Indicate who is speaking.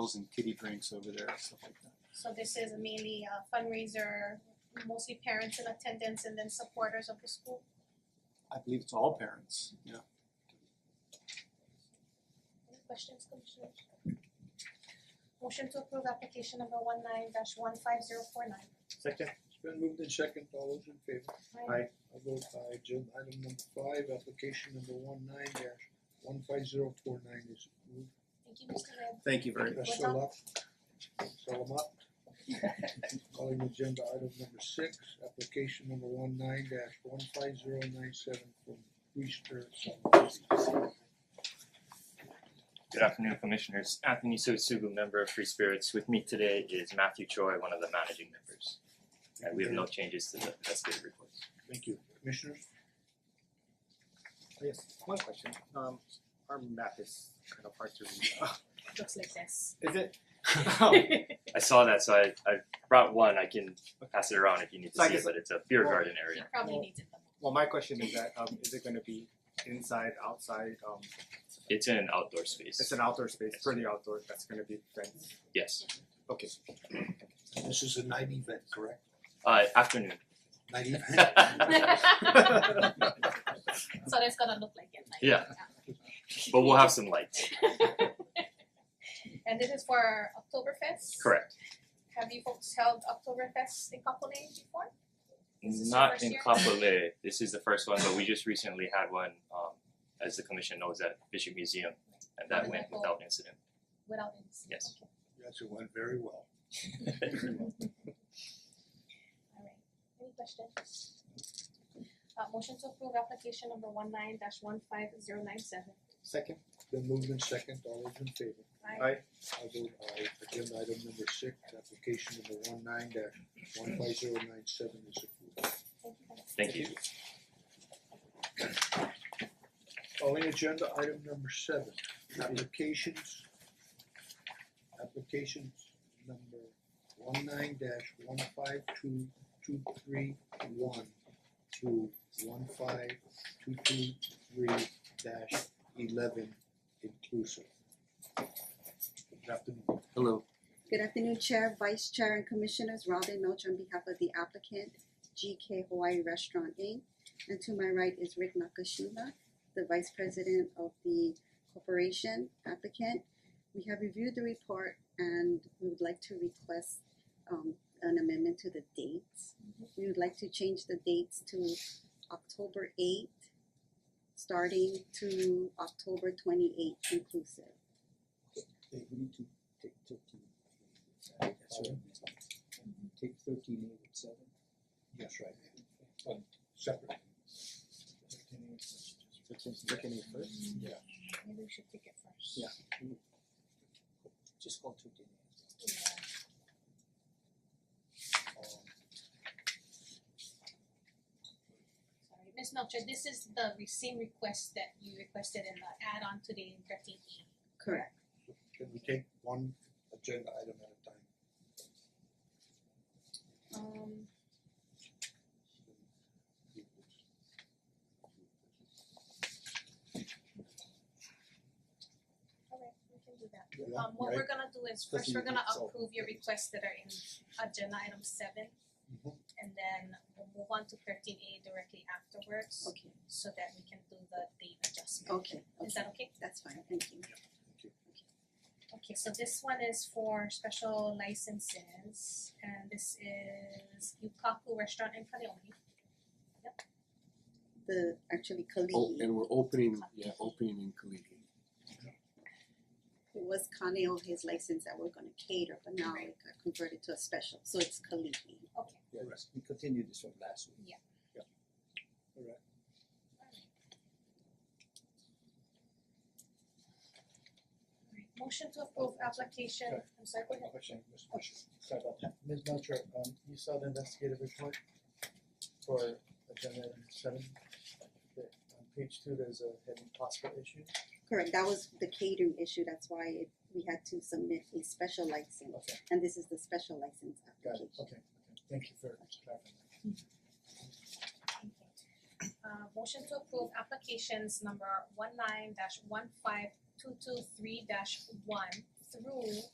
Speaker 1: meals and kiddie drinks over there, stuff like that.
Speaker 2: So this is mainly a fundraiser, mostly parents in attendance and then supporters of the school.
Speaker 1: I believe it's all parents, yeah.
Speaker 2: Any questions, commissioners? Motion to approve application number one nine dash one five zero four nine.
Speaker 3: Second,
Speaker 4: It's been moved in second, all those in favor?
Speaker 2: Aye.
Speaker 4: I vote aye, agenda item number five, application number one nine dash one five zero four nine is approved.
Speaker 2: Thank you, Mr. Webb.
Speaker 3: thank you very much.
Speaker 4: Best of luck. Salamat. Calling agenda item number six, application number one nine dash one five zero nine seven from Brewster Salamat.
Speaker 5: Good afternoon, Commissioners. Anthony Sosugu, member of Free Spirits. With me today is Matthew Choi, one of the managing members. And we have no changes to the investigative reports.
Speaker 4: Thank you. Commissioners?
Speaker 3: Yes, one question, um our map is kind of hard to read. Uh,
Speaker 6: looks like this.
Speaker 3: Is it? Oh.
Speaker 5: I saw that, so I I brought one. I can pass it around if you need to
Speaker 3: So I
Speaker 5: see it,
Speaker 3: guess-
Speaker 5: but it's a beer
Speaker 3: well-
Speaker 5: garden
Speaker 6: He
Speaker 5: area.
Speaker 6: probably needs it the most.
Speaker 3: Well, my question is that um is it gonna be inside, outside, um
Speaker 5: It's in an outdoor space.
Speaker 3: it's an outdoor space, pretty outdoor, that's gonna be fenced,
Speaker 5: Yes.
Speaker 3: okay.
Speaker 4: This is a night event, correct?
Speaker 5: Uh afternoon.
Speaker 4: Night event?
Speaker 6: so that's gonna look like it. Like
Speaker 5: Yeah. But we'll have some lights.
Speaker 2: And this is for Oktoberfest?
Speaker 5: Correct.
Speaker 2: Have you folks held Oktoberfest in Kapolei before? Is this your
Speaker 5: Not
Speaker 2: first
Speaker 5: in
Speaker 2: year?
Speaker 5: Kapolei. This is the first one, but we just recently had one um as the commission knows at Bishop Museum and that went without incident.
Speaker 2: Without incident?
Speaker 5: Yes.
Speaker 2: Okay.
Speaker 4: Yes, it went very well.
Speaker 2: Alright, any questions? Uh motion to approve application number one nine dash one five zero nine seven.
Speaker 3: Second,
Speaker 4: Then moved in second, all those in favor?
Speaker 2: Aye.
Speaker 3: Aye.
Speaker 4: I vote aye, agenda item number six, application number one nine dash one five zero nine seven is approved.
Speaker 2: Thank you, guys.
Speaker 5: Thank you.
Speaker 4: Calling Oh, agenda item number seven, applications. Applications number one nine dash one five two two three one to one five two two three dash eleven inclusive. Good afternoon.
Speaker 3: hello,
Speaker 7: Good afternoon, Chair, Vice Chair and Commissioners, Robin Milch on behalf of the applicant, GK Hawaii Restaurant Inc. And to my right is Rick Nakashima, the Vice President of the corporation applicant. We have reviewed the report and we would like to request um an amendment to the dates.
Speaker 2: Mm-hmm.
Speaker 7: We would like to change the dates to October eighth, starting to October twenty eighth inclusive.
Speaker 8: Okay, we need to take thirteen. That's right. Take thirteen eight and seven.
Speaker 4: Yes, right. Um, separate.
Speaker 3: so since we're getting it first,
Speaker 6: Maybe we should pick it first.
Speaker 8: Yeah. Just go thirteen eight.
Speaker 4: Um,
Speaker 2: Sorry, Ms. Melcher, this is the re- same request that you requested in the add-on today in thirteen E.
Speaker 7: Correct.
Speaker 4: Can we take one agenda item at a time?
Speaker 2: Um, alright, we can do that.
Speaker 4: Yeah,
Speaker 2: Um, what
Speaker 4: right?
Speaker 2: we're gonna do is first, we're gonna approve your requests that are in agenda item seven.
Speaker 4: Mhm.
Speaker 2: And then we'll move on to thirteen A directly afterwards.
Speaker 7: Okay.
Speaker 2: So that we can do the date adjustment.
Speaker 7: Okay,
Speaker 2: Is
Speaker 7: okay,
Speaker 2: that okay?
Speaker 7: that's fine, thank you.
Speaker 2: Okay, so this one is for special licenses and this is Yukaku Restaurant in Kaleomi.
Speaker 7: The, actually
Speaker 1: Oh,
Speaker 7: Kalihi, it
Speaker 1: and we're opening, yeah, opening in Kaliki.
Speaker 7: was Kaneo, his license that we're gonna cater, but now it got converted to a special, so it's Kalihi.
Speaker 2: Okay,
Speaker 8: Yeah, we continued this from last week.
Speaker 2: alright, motion to approve application, I'm sorry, go ahead.
Speaker 8: Question, Mr.
Speaker 2: Fisher.
Speaker 8: Sorry about that. Ms. Melcher, um you saw the investigative report for agenda item seven. The- On page two, there's a heading possible issue.
Speaker 7: Correct, that was the catering issue, that's why it, we had to submit a special license,
Speaker 8: Okay,
Speaker 7: and this is the special license
Speaker 8: got
Speaker 7: application.
Speaker 8: it, okay, okay. Thank you for clarifying.
Speaker 2: Thank you. Uh motion to approve applications number one nine dash one five two two three dash one through